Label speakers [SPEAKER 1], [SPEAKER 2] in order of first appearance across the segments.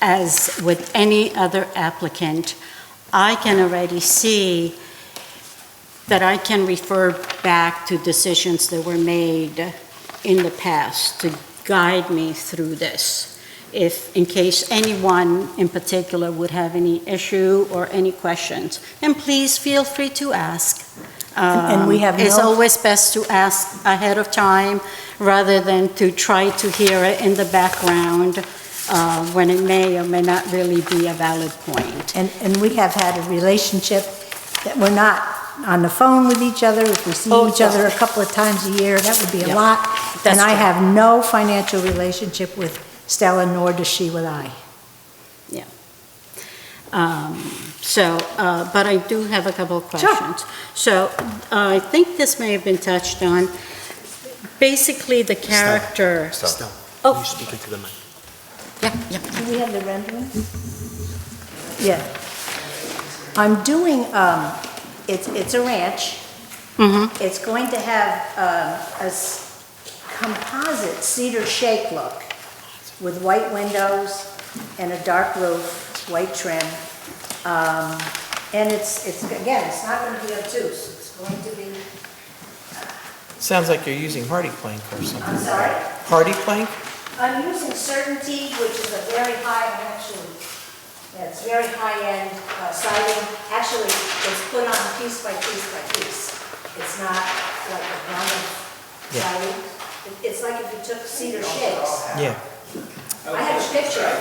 [SPEAKER 1] as with any other applicant, I can already see that I can refer back to decisions that were made in the past to guide me through this. If, in case anyone in particular would have any issue or any questions, and please feel free to ask.
[SPEAKER 2] And- and we have
[SPEAKER 1] Um, It's
[SPEAKER 2] no-
[SPEAKER 1] always best to ask ahead of time rather than to try to hear it in the background uh, when it may or may not really be a valid point.
[SPEAKER 2] And, and we have had a relationship that we're not on the phone with each other. If we see
[SPEAKER 1] Oh,
[SPEAKER 2] each other a
[SPEAKER 1] yeah.
[SPEAKER 2] couple of times a year, that would be
[SPEAKER 1] Yeah,
[SPEAKER 2] a lot.
[SPEAKER 1] that's
[SPEAKER 2] And I
[SPEAKER 1] true.
[SPEAKER 2] have no financial relationship with Stella, nor does she with I.
[SPEAKER 1] Um, So, uh, but I do have a couple of questions. So uh, I think this may have been touched on. Basically, the character,
[SPEAKER 3] Stella,
[SPEAKER 1] Oh.
[SPEAKER 3] you speak into the mic.
[SPEAKER 2] Do we have the rendering? Yeah. I'm doing, um, it's, it's a ranch.
[SPEAKER 1] Mhm.
[SPEAKER 2] It's going to have, um, a s- composite cedar shake look with white windows and a dark roof, white trim. Um, and it's, it's, again, it's not gonna be obtuse. It's going to be,
[SPEAKER 4] Sounds like you're using hardy plank or something.
[SPEAKER 2] I'm sorry,
[SPEAKER 4] Hardy plank?
[SPEAKER 2] I'm using Certainty, which is a very high, actually, yeah, it's very high-end uh, siding. Actually, it's put on piece by piece by piece. It's not like a vinyl
[SPEAKER 4] Yeah.
[SPEAKER 2] siding. It- It's like if you took cedar shakes.
[SPEAKER 4] Yeah,
[SPEAKER 2] I have a picture.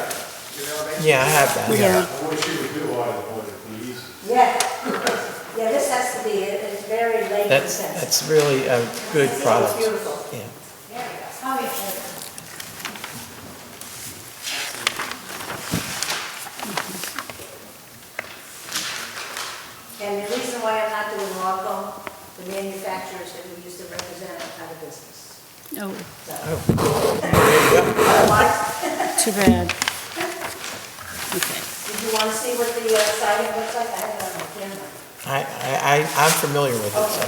[SPEAKER 4] yeah, I have that.
[SPEAKER 1] yeah,
[SPEAKER 5] I wish you would do all of it, it'd be easy.
[SPEAKER 2] Yeah. Yeah, this has to be, it- it's very late
[SPEAKER 4] That's,
[SPEAKER 2] sensitive.
[SPEAKER 4] that's really a good
[SPEAKER 2] It's
[SPEAKER 4] product.
[SPEAKER 2] beautiful.
[SPEAKER 4] Yeah.
[SPEAKER 2] There we go. How many photos? And the reason why I'm not doing Lawco, the manufacturers that we used to represent are out of business.
[SPEAKER 1] oh,
[SPEAKER 2] Otherwise,
[SPEAKER 1] too bad. Okay.
[SPEAKER 2] did you want to see what the uh, siding looks like? I have it on my camera.
[SPEAKER 4] I, I, I- I'm familiar with it, so.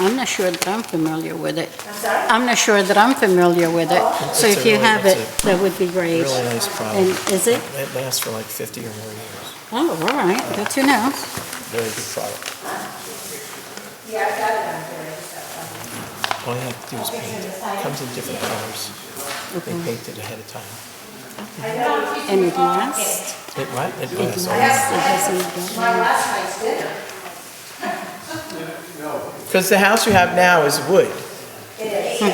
[SPEAKER 1] I'm not sure that I'm familiar with it.
[SPEAKER 2] I'm sorry?
[SPEAKER 1] I'm not sure that I'm familiar with it. So
[SPEAKER 4] It's a
[SPEAKER 1] if you
[SPEAKER 4] really-
[SPEAKER 1] have it,
[SPEAKER 4] it's
[SPEAKER 1] that would be great.
[SPEAKER 4] Really nice product.
[SPEAKER 1] And is it?
[SPEAKER 4] It lasts for like 50 or more years.
[SPEAKER 1] Oh, all right, good to know.
[SPEAKER 4] Very good product.
[SPEAKER 2] Yeah, I got it on um, here. I just got it on.
[SPEAKER 4] All you have to do is paint it. Comes in different colors. They paint it ahead of time.
[SPEAKER 1] And it lasts?
[SPEAKER 4] It, what? It
[SPEAKER 1] It lasts, it
[SPEAKER 4] lasts. all-
[SPEAKER 1] doesn't go.
[SPEAKER 2] My last night's dinner.
[SPEAKER 4] Because the house you have now is wood.
[SPEAKER 3] It's a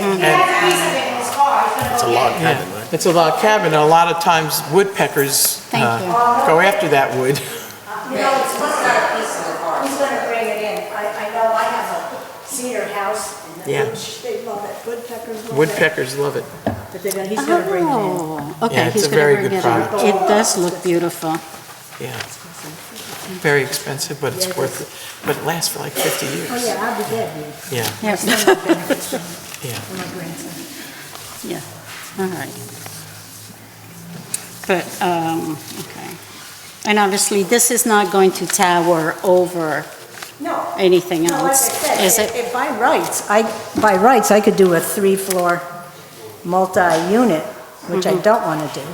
[SPEAKER 3] log cabin, right?
[SPEAKER 4] It's a log cabin, and a lot of times woodpeckers
[SPEAKER 1] Thank
[SPEAKER 4] uh,
[SPEAKER 1] you.
[SPEAKER 4] go after that wood.
[SPEAKER 2] No, it's not a piece of the car. Who's gonna bring it in? I, I know I have a cedar house and
[SPEAKER 4] Yeah.
[SPEAKER 2] the woods, they love it, woodpeckers love it.
[SPEAKER 4] Woodpeckers love it.
[SPEAKER 2] But they're gonna, he's gonna bring it in.
[SPEAKER 1] Oh, okay,
[SPEAKER 4] Yeah, it's
[SPEAKER 1] he's
[SPEAKER 4] a
[SPEAKER 1] gonna
[SPEAKER 4] very
[SPEAKER 1] bring
[SPEAKER 4] good
[SPEAKER 1] it in.
[SPEAKER 4] product.
[SPEAKER 1] It does look beautiful.
[SPEAKER 4] Yeah. Very expensive, but it's worth it. But it lasts for like 50
[SPEAKER 2] Oh,
[SPEAKER 4] years.
[SPEAKER 2] yeah, I'll be dead.
[SPEAKER 4] Yeah,
[SPEAKER 1] Yeah,
[SPEAKER 2] Some benefits from
[SPEAKER 4] yeah.
[SPEAKER 2] my grandson.
[SPEAKER 1] yeah, all right. But, um, okay. And obviously, this is not going to tower over
[SPEAKER 2] No.
[SPEAKER 1] anything
[SPEAKER 2] No, like I
[SPEAKER 1] else,
[SPEAKER 2] said,
[SPEAKER 1] is
[SPEAKER 2] if-
[SPEAKER 1] it?
[SPEAKER 2] if by rights, I, by rights, I could do a three-floor multi-unit, which
[SPEAKER 1] Mm-hmm.
[SPEAKER 2] I don't want to do.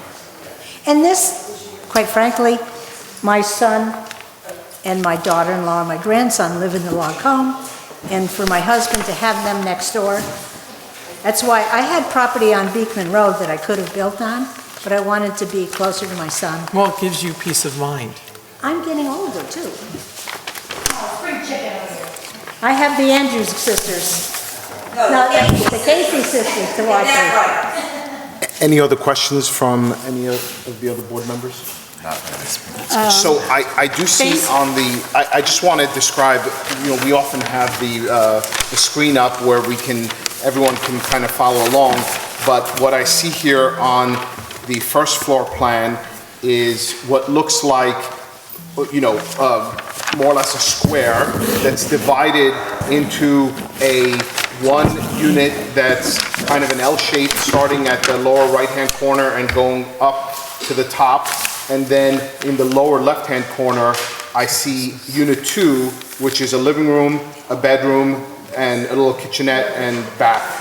[SPEAKER 2] And this, quite frankly, my son and my daughter-in-law and my grandson live in the log home, and for my husband to have them next door, that's why I had property on Beekman Road that I could have built on, but I wanted to be closer to my son.
[SPEAKER 4] Well, it gives you peace of mind.
[SPEAKER 2] I'm getting older, too. Oh, I have the Andrews sisters. No, the Casey sisters to watch with.
[SPEAKER 3] Any other questions from any of of the other board members? So I, I do see
[SPEAKER 1] Thanks.
[SPEAKER 3] on the, I, I just want to describe, you know, we often have the, uh, the screen up where we can, everyone can kind of follow along, but what I see here on the first floor plan is what looks like, you know, uh, more or less a square that's divided into a one unit that's kind of an L shape, starting at the lower right-hand corner and going up to the top. And then in the lower left-hand corner, I see unit two, which is a living room, a bedroom, and a little kitchenette and bath.